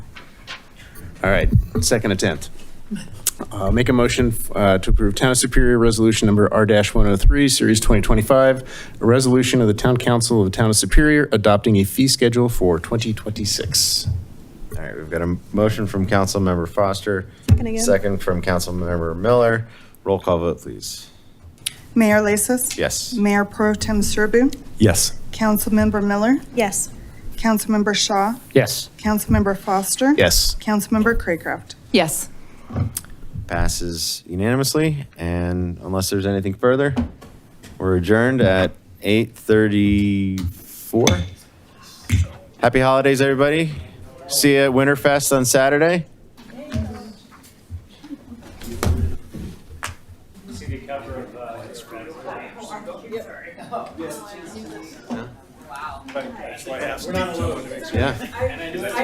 All right, second attempt. Uh, Make a motion uh, to approve Town of Superior Resolution Number R-103, Series 2025, a resolution of the Town Council of the Town of Superior adopting a fee schedule for 2026. All right, we've got a motion from Councilmember Foster. Second again. Second from Councilmember Miller. Roll call vote, please. Mayor Lasis. Yes. Mayor Pro Tem Serbu. Yes. Councilmember Miller. Yes. Councilmember Shaw. Yes. Councilmember Foster. Yes. Councilmember Craycraft. Yes. Passes unanimously, and unless there's anything further, we're adjourned at 8:34. Happy holidays, everybody. See you at Winterfest on Saturday. Yeah.